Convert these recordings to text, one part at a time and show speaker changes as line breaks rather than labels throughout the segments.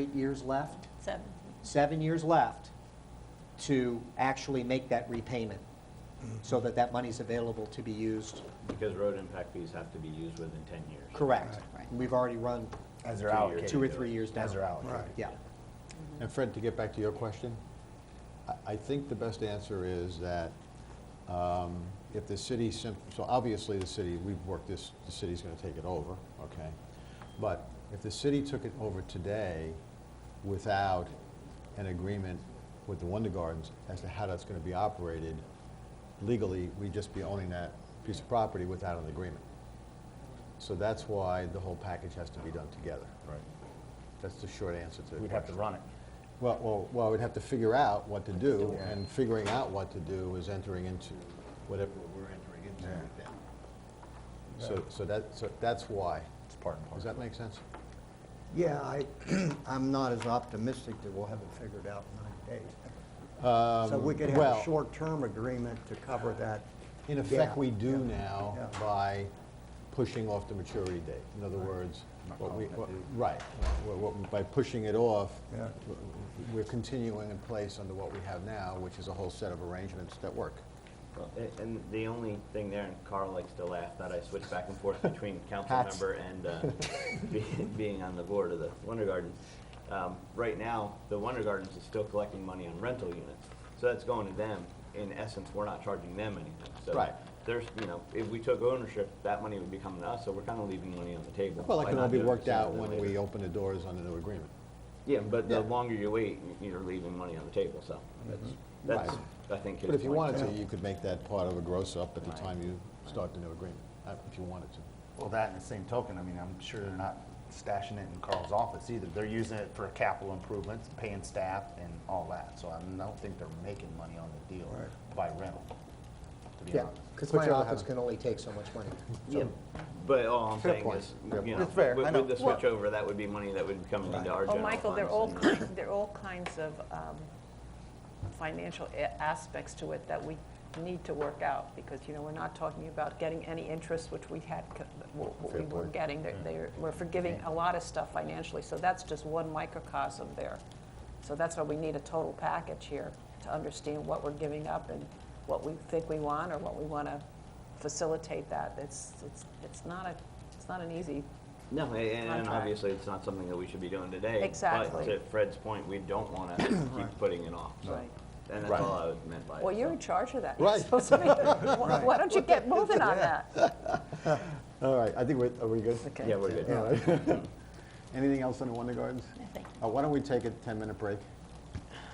eight years left,
Seven.
seven years left to actually make that repayment so that that money's available to be used,
Because road impact fees have to be used within 10 years.
correct.
Right.
We've already run
As they're
Two years.
allocated.
two or three years down.
As they're allocated.
Right.
Yeah.
And Fred, to get back to your question, I- I think the best answer is that um, if the city, sim- so obviously the city, we've worked this, the city's going to take it over, okay? But if the city took it over today without an agreement with the Wonder Gardens as to how that's going to be operated legally, we'd just be owning that piece of property without an agreement. So that's why the whole package has to be done together. Right. That's the short answer to the question.
We'd have to run it.
Well, well, well, we'd have to figure out what to do, and figuring out what to do is entering into whatever we're entering into with them. So, so that, so that's why.
It's part and
Does
parcel.
that make sense?
Yeah, I, I'm not as optimistic that we'll have it figured out in nine days. So we could have
well-
a short-term agreement to cover that.
In effect,
gap.
we do
Yeah,
now
yeah.
by pushing off the maturity date. In other words, what we, what- right, what- what- by pushing it off,
Yeah.
we're continuing in place under what we have now, which is a whole set of arrangements that work.
Well, a- And the only thing there, and Carl likes to laugh, that I switch back and forth between council
Hats.
member and uh, be- being on the board of the Wonder Garden. Um, Right now, the Wonder Gardens is still collecting money on rental units, so that's going to them. In essence, we're not charging them anything. So
Right.
There's, you know, if we took ownership, that money would be coming to us, so we're kind of leaving money on the table.
Well, that
by
can all
not
be
doing
worked
sooner
out
than
when
later.
we open the doors on the new agreement.
Yeah, but the
Yeah.
longer you wait, you're leaving money on the table, so that's, that's,
Right.
I think.
But if you wanted to,
you
you could make that part of a gross up at the
Right.
time you start the new agreement, uh, if you wanted to.
Well, that and the same token, I mean, I'm sure they're not stashing it in Carl's office either. They're using it for capital improvements, paying staff and all that. So I don't think they're making money on the deal by rental, to be
Yeah,
honest.
because
Put
my
your other
office
hand.
can only take so much money.
Yeah, but all I'm
Fair
saying
point.
is,
Fair
you
point.
know,
It's fair, I
with
know.
with the switch over, that would be money that would be coming into our
Oh,
general
Michael, there are
funds
all
and-
kinds, there are all kinds of um, financial a- aspects to it that we need to work out, because, you know, we're not talking about getting any interest, which we had, co- what what we
Fair
were
point.
getting. They're- they're- We're forgiving a lot of stuff financially, so that's just one microcosm there. So that's why we need a total package here, to understand what we're giving up and what we think we want, or what we want to facilitate that. It's, it's, it's not a, it's not an easy
No, a- and, and
Contract.
obviously, it's not something that we should be doing today.
Exactly.
But to Fred's point, we don't want to keep putting it off, so,
Right.
and that's
Right.
all I was meant by it.
Well,
so.
you're in charge of that.
Right.
You're supposed to be, why why don't you get moving on that?
All right, I think we're, are we good?
Okay.
Yeah, we're good.
Anything else on the Wonder Gardens? Nothing. Why don't we take a 10-minute break? Is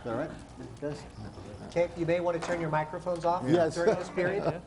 that all right?
Does- Kate, you may want to turn your microphones off
Yes.
during this period.